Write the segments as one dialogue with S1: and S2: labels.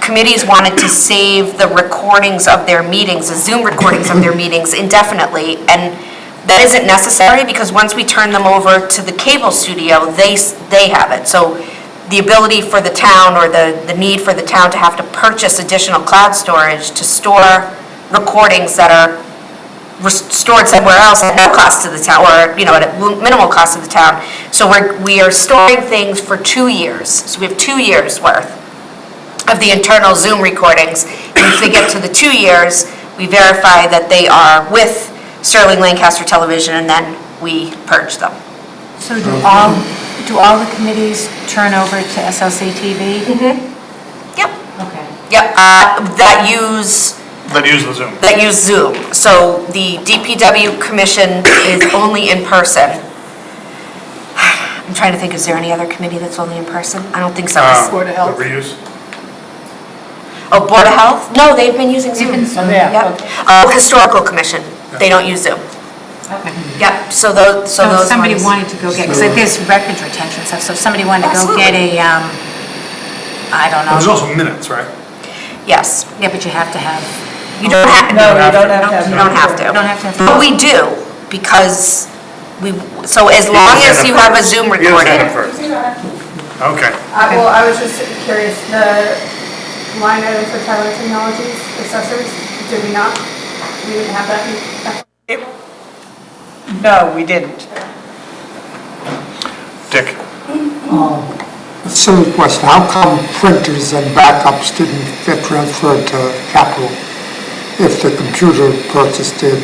S1: committees wanted to save the recordings of their meetings, the Zoom recordings of their meetings indefinitely, and that isn't necessary, because once we turn them over to the cable studio, they, s- they have it. So the ability for the town, or the, the need for the town to have to purchase additional cloud storage to store recordings that are res- stored somewhere else at no cost to the town, or, you know, at a lu- minimal cost to the town. So we're, we are storing things for two years, so we have two years' worth of the internal Zoom recordings. And if we get to the two years, we verify that they are with Sterling Lancaster Television, and then we purge them.
S2: So do all, do all the committees turn over to SLC TV?
S1: Mm-hmm. Yep.
S2: Okay.
S1: Yep, uh, that use
S3: that use the Zoom.
S1: that use Zoom. So the DPW commission is only in person. I'm trying to think, is there any other committee that's only in person? I don't think so.
S3: Uh,
S4: Board of Health.
S3: The reuse.
S1: Oh, Board of Health? No, they've been using Zoom.
S4: Oh, yeah,
S1: Yep.
S4: okay.
S1: Uh, Historical Commission, they don't use Zoom.
S2: Okay.
S1: Yep, so those, so
S2: So if
S1: those
S2: somebody
S1: ones-
S2: wanted to go get, because there's records retention stuff, so if somebody wanted to go get a, um, I don't
S3: There's
S2: know.
S3: also minutes, right?
S1: Yes,
S2: Yeah, but you have to have,
S1: you don't have,
S4: No,
S1: you
S4: you don't have to have.
S1: don't have to.
S2: you don't have to have.
S1: But we do, because we, so as long as you have a Zoom
S3: You gotta stand
S1: recording.
S3: up first. Okay,
S5: I- Well, I was just curious, the line item for Tyler Technologies accessories, did we not? We didn't have that in- that
S4: No, we didn't.
S3: Dick.
S6: Silly question, how come printers and backups didn't get transferred to capital if the computer purchase did?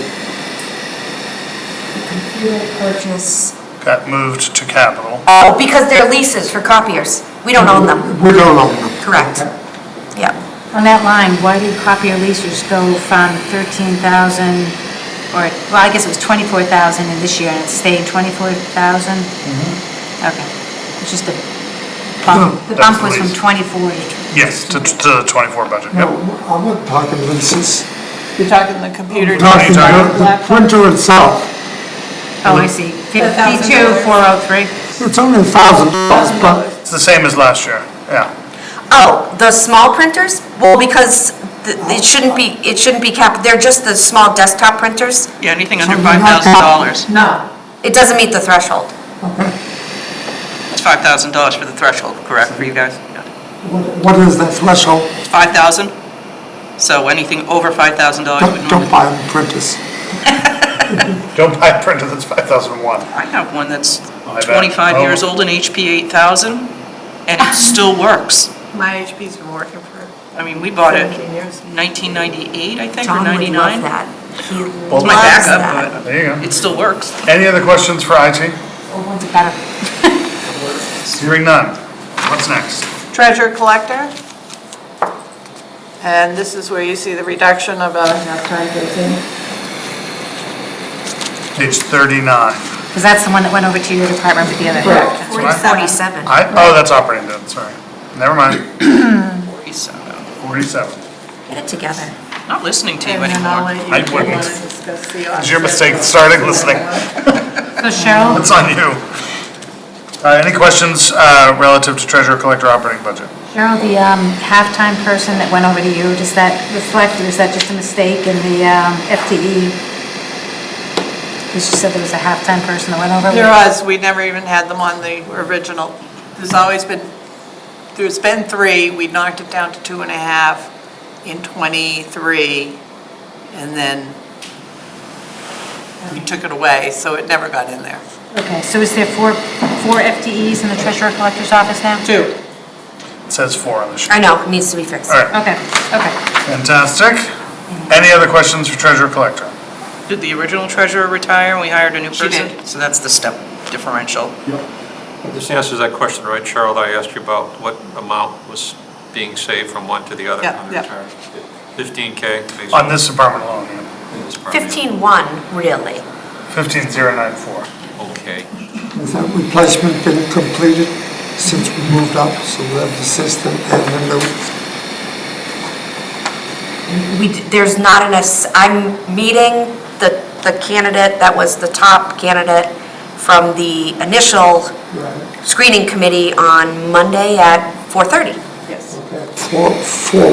S1: Purchase.
S3: Got moved to capital.
S1: Oh, because they're leases for copiers. We don't own them.
S6: We don't own them.
S1: Correct. Yeah.
S2: On that line, why did copier leases go from 13,000, or, well, I guess it was 24,000 in this year, and it stayed 24,000?
S1: Mm-hmm.
S2: Okay, it's just a bump, the
S3: That's
S2: bump was
S3: the
S2: from
S3: lease.
S2: 24 to...
S3: Yes, to, to the 24 budget,
S6: No,
S3: yep.
S6: I'm not talking leases.
S4: You're talking the computer.
S6: I'm talking about the
S4: Laptop.
S6: printer itself.
S2: Oh, I see, 52, 403.
S6: It's only a thousand dollars, but
S3: It's the same as last year, yeah.
S1: Oh, the small printers? Well, because th- it shouldn't be, it shouldn't be cap, they're just the small desktop printers.
S7: Yeah, anything under
S6: Something like
S7: $5,000.
S4: No.
S1: It doesn't meet the threshold.
S7: It's $5,000 for the threshold, correct, for you guys? Yeah.
S6: what- what is that threshold?
S7: It's 5,000? So anything over $5,000 would
S6: Don't, don't
S7: normally...
S6: buy them printers.
S3: Don't buy a printer that's 5,001.
S7: I have one that's
S3: I bet.
S7: 25 years
S3: Oh.
S7: old, an HP 8000, and it still works.
S4: My HP's been working for
S7: I mean, we bought it
S4: 17 years.
S7: 1998, I think, or
S1: John would love
S7: 99.
S1: that. He
S3: Well,
S1: loves
S7: It's my
S1: that.
S7: backup,
S3: There you
S7: but
S3: go.
S7: it still works.
S3: Any other questions for IT?
S2: Oh, one's better.
S3: Hearing none. What's next?
S4: Treasure collector. And this is where you see the reduction of uh, a.
S3: Page 39.
S2: Because that's the one that went over to your department with the other.
S4: Correct.
S1: Forty-seven.
S3: I, oh, that's operating then, sorry. Never mind,
S7: 47.
S3: 47.
S1: Get it together.
S7: uh, Not listening to you
S4: And then I'll let
S7: anymore.
S4: you.
S3: I
S4: if you
S3: wouldn't.
S4: wanna discuss the
S3: It's your mistake, starting listening.
S2: So Cheryl,
S3: It's on you. Uh, Any questions uh, relative to treasurer collector operating budget?
S2: Cheryl, the um, halftime person that went over to you, does that reflect, or is that just a mistake in the um, FTE? Because you said there was a halftime person that went over.
S4: There was, we never even had them on the original. There's always been, there's been three, we knocked it down to two and a half in '23, and then we took it away, so it never got in there.
S2: Okay, so is there four, four FTEs in the treasurer collector's office now?
S4: Two.
S3: It says four on the sheet.
S1: I know, it needs to be fixed.
S3: All right,
S2: Okay, okay.
S3: fantastic. Any other questions for treasurer collector?
S7: Did the original treasurer retire and we hired a new
S4: She
S7: person?
S4: did.
S7: So that's the step differential.
S8: This answers that question, right, Cheryl, that I asked you about what amount was being saved from one to the other
S4: Yeah,
S8: on
S4: yeah.
S8: the return? Fifteen K?
S3: On this department alone,
S1: Fifteen-one, really.
S3: 15094.
S8: Okay.
S6: Has that replacement been completed since we moved up, so we have the system and the new?
S1: We, d- there's not enough, s- I'm meeting the, the candidate that was the top candidate from the initial screening committee on Monday at four-thirty.
S4: Yes.
S6: Okay, Four, four